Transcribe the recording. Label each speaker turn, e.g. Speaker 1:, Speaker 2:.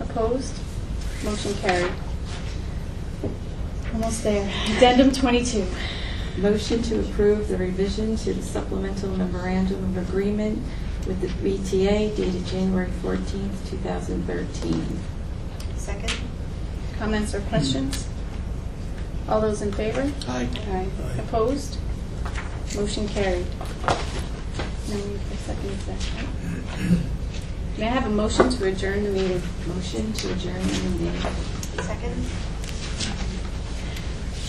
Speaker 1: Opposed? Motion carried. Almost there. Addendum 22.
Speaker 2: Motion to approve the revision to the supplemental memorandum of agreement with the BTA dated January 14th, 2013.
Speaker 3: Second?
Speaker 1: Comments or questions? All those in favor?
Speaker 4: Aye.
Speaker 1: Aye.
Speaker 4: Aye.
Speaker 1: Opposed? Motion carried. Now we have a second session. May I have a motion to adjourn the meeting?
Speaker 2: Motion to adjourn the meeting.
Speaker 3: Second?